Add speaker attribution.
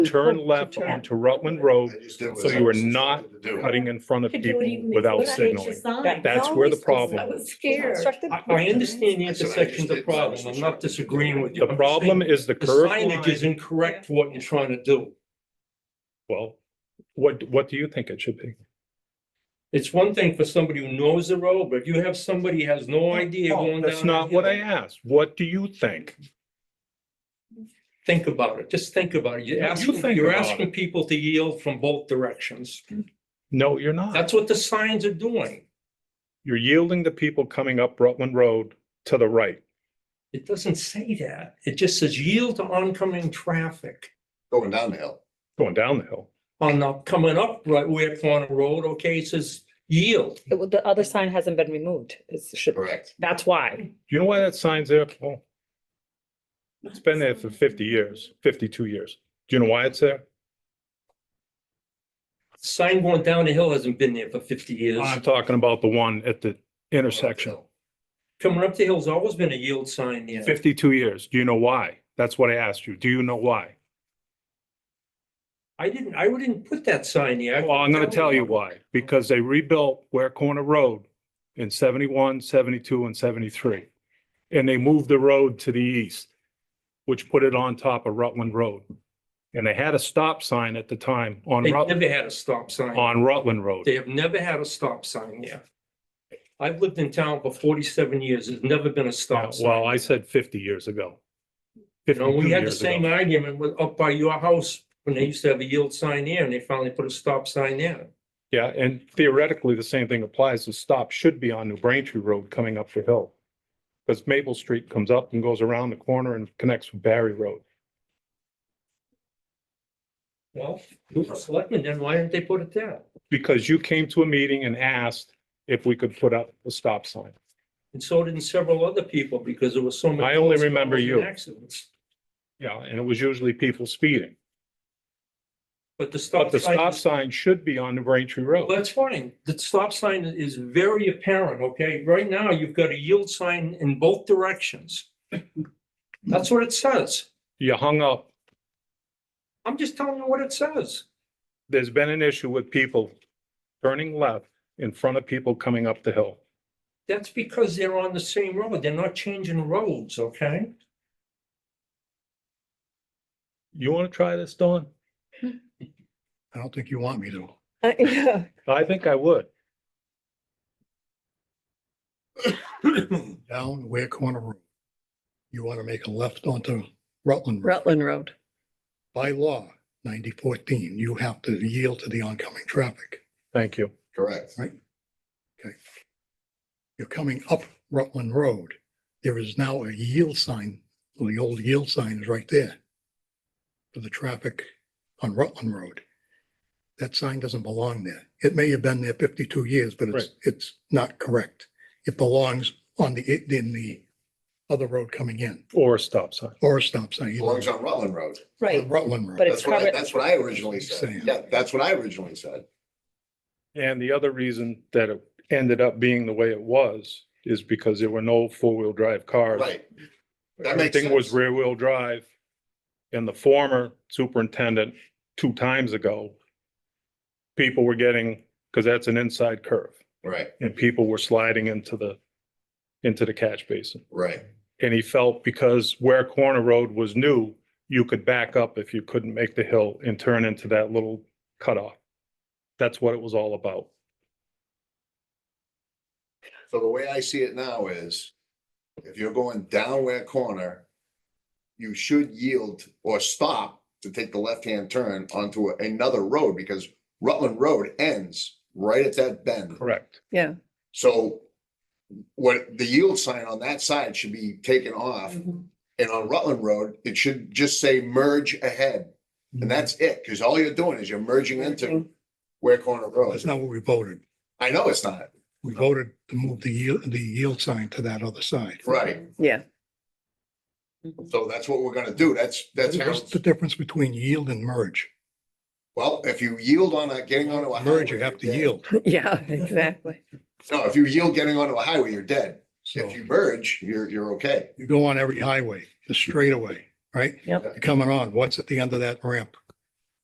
Speaker 1: turn left
Speaker 2: turn.
Speaker 1: onto Rutland Road,
Speaker 3: I just did what
Speaker 1: so
Speaker 3: I
Speaker 1: you are
Speaker 3: was
Speaker 1: not
Speaker 3: instructed to do.
Speaker 1: cutting in front of
Speaker 4: Could do it
Speaker 1: people
Speaker 4: even before
Speaker 1: without
Speaker 4: they changed the
Speaker 1: signaling.
Speaker 4: sign.
Speaker 2: Right.
Speaker 1: That's where the
Speaker 4: I
Speaker 1: problem is.
Speaker 4: was scared.
Speaker 5: I, I understand the intersection's a problem. I'm not disagreeing with you.
Speaker 1: The
Speaker 5: I'm
Speaker 1: problem
Speaker 5: saying
Speaker 1: is the
Speaker 5: The
Speaker 1: curve
Speaker 5: signage is
Speaker 1: line.
Speaker 5: incorrect for what you're trying to do.
Speaker 1: Well, what, what do you think it should be?
Speaker 5: It's one thing for somebody who knows the road, but if you have somebody who has no idea going down.
Speaker 1: That's not what I
Speaker 5: that hill,
Speaker 1: asked. What do you think?
Speaker 5: Think about it. Just think about it. You're
Speaker 1: Yeah, you
Speaker 5: asking,
Speaker 1: think
Speaker 5: you're
Speaker 1: about
Speaker 5: asking people to yield from both directions.
Speaker 1: No, you're not.
Speaker 5: That's what the signs are doing.
Speaker 1: You're yielding to people coming up Rutland Road to the right.
Speaker 5: It doesn't say that. It just says yield to oncoming traffic.
Speaker 3: Going down the hill.
Speaker 1: going down the hill.
Speaker 5: On the coming up right where corner road, okay, it says yield.
Speaker 2: It wa- The other sign hasn't been removed. It's, should,
Speaker 3: Correct.
Speaker 2: that's why.
Speaker 1: Do you know why that sign's there, Paul? It's been there for fifty years, fifty-two years. Do you know why it's there?
Speaker 5: Sign going down the hill hasn't been there for fifty years.
Speaker 1: I'm talking about the one at the intersection,
Speaker 5: Coming up the hill's always been a yield sign there.
Speaker 1: fifty-two years. Do you know why? That's what I asked you. Do you know why?
Speaker 5: I didn't, I wouldn't put that sign there.
Speaker 1: Well, I'm gonna tell you why. Because they rebuilt Ware Corner Road in 71, 72, and seventy-three. And they moved the road to the east, which put it on top of Rutland Road. And they had a stop sign at the time on
Speaker 5: They
Speaker 1: Rutland,
Speaker 5: never had a stop sign.
Speaker 1: on Rutland Road.
Speaker 5: They have never had a stop sign there. I've lived in town for forty-seven years. There's never been a
Speaker 1: Yeah,
Speaker 5: stop sign.
Speaker 1: Well, I said fifty years ago.
Speaker 5: You know, we
Speaker 1: 52
Speaker 5: had the
Speaker 1: years
Speaker 5: same
Speaker 1: ago.
Speaker 5: argument with, up by your house, when they used to have a yield sign there, and they finally put a stop sign there.
Speaker 1: Yeah, and theoretically, the same thing applies. The stop should be on New Braintree Road coming up the hill. Because Maple Street comes up and goes around the corner and connects with Barry Road.
Speaker 5: Well, who's the selectmen, then why didn't they put it there?
Speaker 1: Because you came to a meeting and asked if we could put up a stop sign.
Speaker 5: And so did several other people, because there was so many.
Speaker 1: I only remember
Speaker 5: calls and
Speaker 1: you.
Speaker 5: Accidents,
Speaker 1: Yeah, and it was usually people speeding.
Speaker 5: but the
Speaker 1: But
Speaker 5: stop.
Speaker 1: the
Speaker 5: sign
Speaker 1: stop
Speaker 5: is-
Speaker 1: sign should be on New Braintree
Speaker 5: Well,
Speaker 1: Road.
Speaker 5: that's fine. The stop sign is very apparent, okay? Right now, you've got a yield sign in both directions. That's what it says.
Speaker 1: You hung up.
Speaker 5: I'm just telling you what it says.
Speaker 1: There's been an issue with people turning left in front of people coming up the hill.
Speaker 5: That's because they're on the same road. They're not changing roads, okay?
Speaker 1: You want to try this, Dawn?
Speaker 3: I don't think you want me to.
Speaker 2: Uh, yeah.
Speaker 1: I think I would.
Speaker 6: down Ware Corner Road. You want to make a left onto Rutland. Road.
Speaker 2: Rutland Road.
Speaker 6: By law, ninety fourteen, you have to yield to the oncoming traffic.
Speaker 1: Thank you.
Speaker 3: Correct.
Speaker 6: You're coming up Rutland Road. There is now a yield sign, well, the old yield sign is right there for the traffic on Rutland Road. That sign doesn't belong there. It may have been there fifty-two years, but it's, it's not correct. It belongs on the, in the other road coming in
Speaker 1: Or a stop sign.
Speaker 6: or a stop sign. either
Speaker 3: Belongs
Speaker 6: on
Speaker 3: on Rutland Road.
Speaker 2: Right.
Speaker 6: Rutland Road.
Speaker 2: But it's
Speaker 3: That's what, I-
Speaker 2: covered-
Speaker 3: that's what I originally said.
Speaker 6: Same.
Speaker 3: Yeah, that's what I originally said.
Speaker 1: And the other reason that it ended up being the way it was is because there were no four-wheel drive cars.
Speaker 3: Right. That makes
Speaker 1: Everything was
Speaker 3: sense.
Speaker 1: rear-wheel drive. And the former superintendent, two times ago, people were getting, because that's an inside curve,
Speaker 3: Right,
Speaker 1: and people were sliding into the, into the catch basin.
Speaker 3: right.
Speaker 1: And he felt because where Corner Road was new, you could back up if you couldn't make the hill and turn into that little cutoff. That's what it was all about.
Speaker 3: So the way I see it now is if you're going down where corner, you should yield or stop to take the left-hand turn onto another road because Rutland Road ends right at that bend.
Speaker 1: Correct.
Speaker 3: So what the yield sign on that side should be taken off and on Rutland Road, it should just say merge ahead. And that's
Speaker 6: Mm-hmm.
Speaker 3: it, because all you're doing is you're merging into Ware Corner Road.
Speaker 6: That's not what we voted.
Speaker 3: I know it's not,
Speaker 6: We voted to move the yield, the yield sign to that other side.
Speaker 3: right?
Speaker 2: Yeah.
Speaker 3: So that's what we're gonna do. That's, that's, how-
Speaker 6: What's Mm-hmm. the difference between yield and merge?
Speaker 3: well, if you yield on a, getting onto a.
Speaker 6: Merge, you
Speaker 3: highway,
Speaker 6: have to
Speaker 3: you're dead.
Speaker 6: yield.
Speaker 2: Yeah, exactly.
Speaker 3: No, if you yield getting onto a highway, you're dead.
Speaker 6: So
Speaker 3: If you merge, you're, you're okay.
Speaker 6: you go on every highway, the straightaway, right?
Speaker 2: Yep.
Speaker 6: You're Coming on, what's at the end of that ramp?